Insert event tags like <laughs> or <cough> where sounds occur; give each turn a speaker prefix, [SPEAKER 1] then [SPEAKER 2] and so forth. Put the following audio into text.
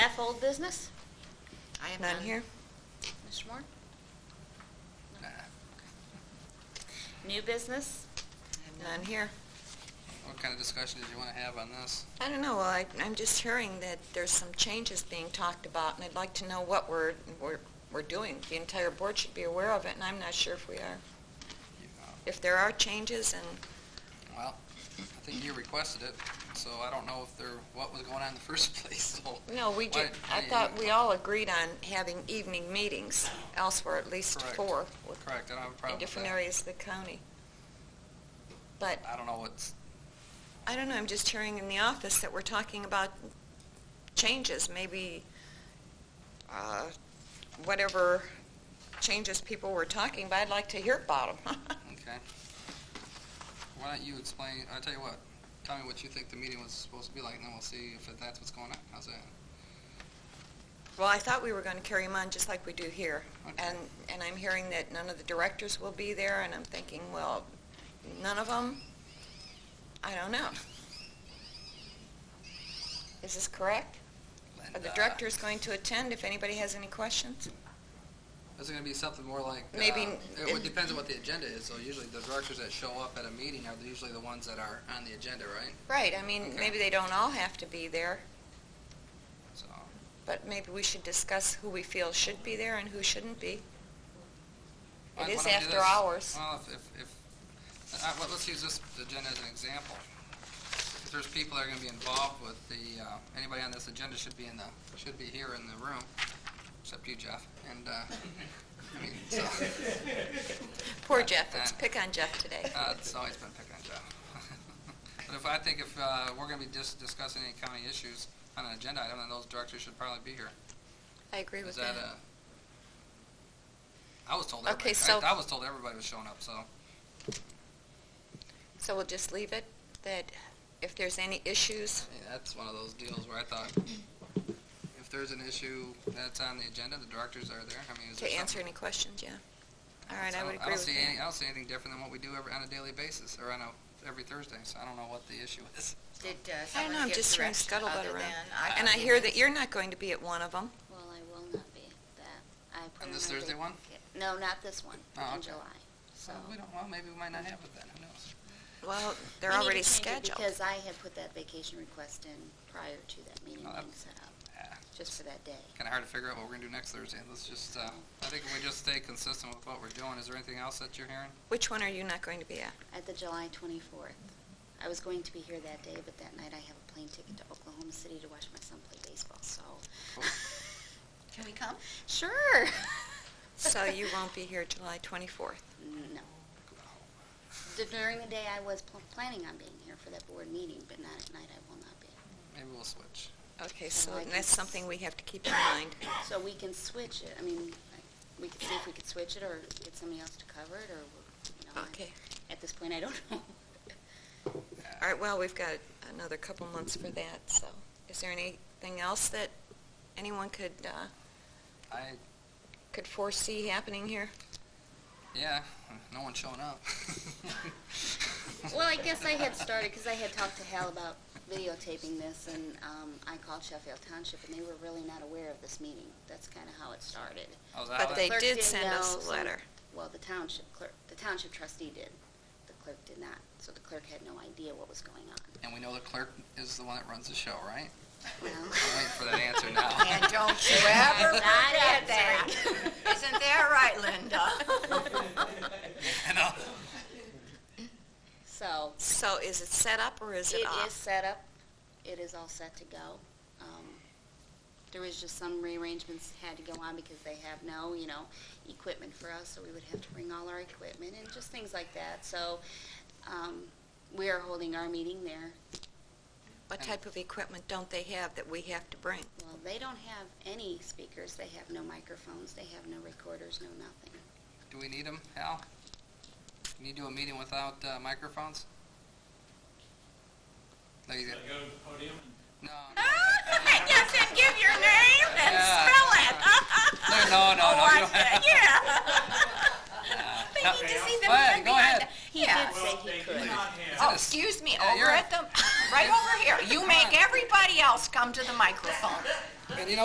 [SPEAKER 1] F, old business?
[SPEAKER 2] I have
[SPEAKER 3] None here?
[SPEAKER 2] Mr. Moore?
[SPEAKER 1] New business?
[SPEAKER 3] None here.
[SPEAKER 4] What kind of discussion did you want to have on this?
[SPEAKER 3] I don't know, I, I'm just hearing that there's some changes being talked about, and I'd like to know what we're, we're, we're doing. The entire board should be aware of it, and I'm not sure if we are.
[SPEAKER 4] You, uh,
[SPEAKER 3] If there are changes, and
[SPEAKER 4] Well, I think you requested it, so I don't know if there, what was going on in the <laughs> first place, so.
[SPEAKER 3] No, we
[SPEAKER 4] Why-
[SPEAKER 3] did, I
[SPEAKER 4] why-
[SPEAKER 3] thought we all agreed on having evening meetings elsewhere, at least
[SPEAKER 4] Correct.
[SPEAKER 3] four, with-
[SPEAKER 4] Correct, I don't have a
[SPEAKER 3] in
[SPEAKER 4] problem with
[SPEAKER 3] different
[SPEAKER 4] that.
[SPEAKER 3] areas of the county. But,
[SPEAKER 4] I don't know what's,
[SPEAKER 3] I don't know, I'm just hearing in the office that we're talking about changes, maybe uh, whatever changes people were talking about, I'd like to hear about <laughs> them.
[SPEAKER 4] okay. Why don't you explain, I'll tell you what, tell me what you think the meeting was supposed to be like, and then we'll see if that's what's going on. How's that?
[SPEAKER 3] Well, I thought we were going to carry them on just like we do here.
[SPEAKER 4] Okay.
[SPEAKER 3] And, and I'm hearing that none of the directors will be there, and I'm thinking, well, none of them? I don't know. Is this correct? Are the
[SPEAKER 4] Linda.
[SPEAKER 3] directors going to attend if anybody has any questions?
[SPEAKER 4] Is it gonna be something more like? uh,
[SPEAKER 3] Maybe
[SPEAKER 4] It
[SPEAKER 3] in-
[SPEAKER 4] would- depends on what the agenda is, so usually the directors that show up at a meeting are usually the ones that are on the agenda, right?
[SPEAKER 3] Right, I mean,
[SPEAKER 4] Okay.
[SPEAKER 3] maybe they don't all have to be there,
[SPEAKER 4] So,
[SPEAKER 3] but maybe we should discuss who we feel should be there and who shouldn't be.
[SPEAKER 4] Why-
[SPEAKER 3] It
[SPEAKER 4] why
[SPEAKER 3] is
[SPEAKER 4] don't we do
[SPEAKER 3] after
[SPEAKER 4] this?
[SPEAKER 3] hours.
[SPEAKER 4] Well, if- if, if, uh, well, let's use this agenda as an example. If there's people that are gonna be involved with the, uh, anybody on this agenda should be in the, should be here in the room, except you, Jeff, and, uh, I mean, so,
[SPEAKER 3] Poor Jeff, let's pick on Jeff today.
[SPEAKER 4] uh, it's always been picking on Jeff. <laughs> But if, I think if, uh, we're gonna be just discussing any county issues on an agenda item, then those directors should probably be here.
[SPEAKER 3] I agree
[SPEAKER 4] Is
[SPEAKER 3] with
[SPEAKER 4] that
[SPEAKER 3] that.
[SPEAKER 4] a? I was told
[SPEAKER 3] Okay,
[SPEAKER 4] everybody,
[SPEAKER 3] so-
[SPEAKER 4] I I was told everybody was showing up, so.
[SPEAKER 3] So we'll just leave it, that if there's any issues,
[SPEAKER 4] I mean, that's one of those deals where I thought, if there's an issue that's on the agenda, the directors are there. I mean, is there
[SPEAKER 3] to answer
[SPEAKER 4] something-
[SPEAKER 3] any questions, yeah. All right, I
[SPEAKER 4] So
[SPEAKER 3] would
[SPEAKER 4] don't
[SPEAKER 3] agree with
[SPEAKER 4] see any- I
[SPEAKER 3] that.
[SPEAKER 4] don't see anything different than what we do every, on a daily basis, or on a, every Thursday, so I don't know what the issue is.
[SPEAKER 2] Did uh,
[SPEAKER 3] I don't know,
[SPEAKER 2] someone
[SPEAKER 3] I'm
[SPEAKER 2] give
[SPEAKER 3] just hearing
[SPEAKER 2] direction
[SPEAKER 3] scuttlebutt
[SPEAKER 2] other than?
[SPEAKER 3] around. And I hear that you're not going to be at one of them.
[SPEAKER 5] Well, I will not be at that. I put
[SPEAKER 4] On
[SPEAKER 5] in
[SPEAKER 4] this
[SPEAKER 5] my
[SPEAKER 4] Thursday
[SPEAKER 5] big-
[SPEAKER 4] one?
[SPEAKER 5] No, not this one,
[SPEAKER 4] Oh,
[SPEAKER 5] in
[SPEAKER 4] okay.
[SPEAKER 5] July, so.
[SPEAKER 4] So, we don't, well, maybe we might not have it then, who knows?
[SPEAKER 3] Well, they're
[SPEAKER 5] We need to
[SPEAKER 3] already
[SPEAKER 5] change it
[SPEAKER 3] scheduled.
[SPEAKER 5] Because I had put that vacation request in prior to that meeting
[SPEAKER 4] Oh, that-
[SPEAKER 5] being set up,
[SPEAKER 4] Yeah,
[SPEAKER 5] just for that day.
[SPEAKER 4] <sighs> Kinda hard to figure out what we're gonna do next Thursday. Let's just, uh, I think if we just stay consistent with what we're doing. Is there anything else that you're hearing?
[SPEAKER 3] Which one are you not going to be at?
[SPEAKER 5] At the July 24th. I was going to be here that day, but that night I have a plane ticket to Oklahoma City to watch my son play baseball,
[SPEAKER 3] <laughs>
[SPEAKER 5] so.
[SPEAKER 2] Can we come?
[SPEAKER 5] Sure.
[SPEAKER 3] <laughs> So you won't be here July
[SPEAKER 5] <laughs>
[SPEAKER 3] 24th.
[SPEAKER 5] No. D- During the day, I was pl- planning on being here for that board meeting, but not at night, I will not be.
[SPEAKER 4] Maybe we'll switch.
[SPEAKER 3] Okay,
[SPEAKER 5] So
[SPEAKER 3] so
[SPEAKER 5] I can
[SPEAKER 3] that's
[SPEAKER 5] s-
[SPEAKER 3] something we have to keep in mind.
[SPEAKER 5] So we can switch it, I mean, I- we could see if we could switch it, or get somebody else to cover it, or, you know. I-
[SPEAKER 3] Okay.
[SPEAKER 5] At this point, I don't <laughs> know.
[SPEAKER 3] All right, well, we've got another couple months for that, so is there anything else that anyone could, uh,
[SPEAKER 4] I,
[SPEAKER 3] could foresee happening here?
[SPEAKER 4] yeah, no one's showing up.
[SPEAKER 5] <laughs> Well, I guess I had started, because I had talked to Hal about videotaping this, and um, I called Sheffield Township, and they were really not aware of this meeting. That's kind of how it started.
[SPEAKER 4] How's that?
[SPEAKER 3] But they
[SPEAKER 5] Clerk
[SPEAKER 3] did
[SPEAKER 5] didn't
[SPEAKER 3] send us
[SPEAKER 5] know,
[SPEAKER 3] a
[SPEAKER 5] so-
[SPEAKER 3] letter.
[SPEAKER 5] Well, the township clerk, the township trustee did. The clerk did not, so the clerk had no idea what was going on.
[SPEAKER 4] And we know the clerk is the one that runs the show, right? <laughs>
[SPEAKER 5] Well,
[SPEAKER 4] I'm waiting for that answer
[SPEAKER 5] <laughs>
[SPEAKER 4] now.
[SPEAKER 2] And don't
[SPEAKER 3] <laughs>
[SPEAKER 2] you ever
[SPEAKER 5] not
[SPEAKER 2] forget that.
[SPEAKER 5] answering.
[SPEAKER 2] Isn't that right, Linda?
[SPEAKER 4] You know?
[SPEAKER 5] <laughs> So,
[SPEAKER 3] So is it set up or is it
[SPEAKER 5] It is
[SPEAKER 3] off?
[SPEAKER 5] set up. It is all set to go. Um, there was just some rearrangements had to go on because they have no, you know, equipment for us, so we would have to bring all our equipment and just things like that. So um, we are holding our meeting there.
[SPEAKER 3] What type of equipment don't they have that we have to bring?
[SPEAKER 5] Well, they don't have any speakers. They have no microphones. They have no recorders. No nothing.
[SPEAKER 4] Do we need them, Hal? Can you do a meeting without uh, microphones? No, you
[SPEAKER 6] I
[SPEAKER 4] got,
[SPEAKER 6] go to the podium and
[SPEAKER 4] no.
[SPEAKER 2] <laughs> Yes, and give your name and
[SPEAKER 4] Yeah.
[SPEAKER 2] spell
[SPEAKER 4] Oh,
[SPEAKER 2] it.
[SPEAKER 4] No, no, no,
[SPEAKER 2] I
[SPEAKER 3] Oh,
[SPEAKER 4] no, you don't
[SPEAKER 2] said, <laughs>
[SPEAKER 4] have-
[SPEAKER 2] Yeah. They need to see the
[SPEAKER 4] Go ahead,
[SPEAKER 2] man
[SPEAKER 4] go
[SPEAKER 2] behind
[SPEAKER 4] ahead.
[SPEAKER 2] the- He
[SPEAKER 5] He did say
[SPEAKER 6] Well,
[SPEAKER 5] he
[SPEAKER 6] they
[SPEAKER 5] could.
[SPEAKER 6] did not have.
[SPEAKER 3] Oh, excuse me,
[SPEAKER 4] Yeah,
[SPEAKER 3] over
[SPEAKER 4] you're- <laughs>
[SPEAKER 3] at the, right over here. You make everybody else come to the microphone.
[SPEAKER 4] And you know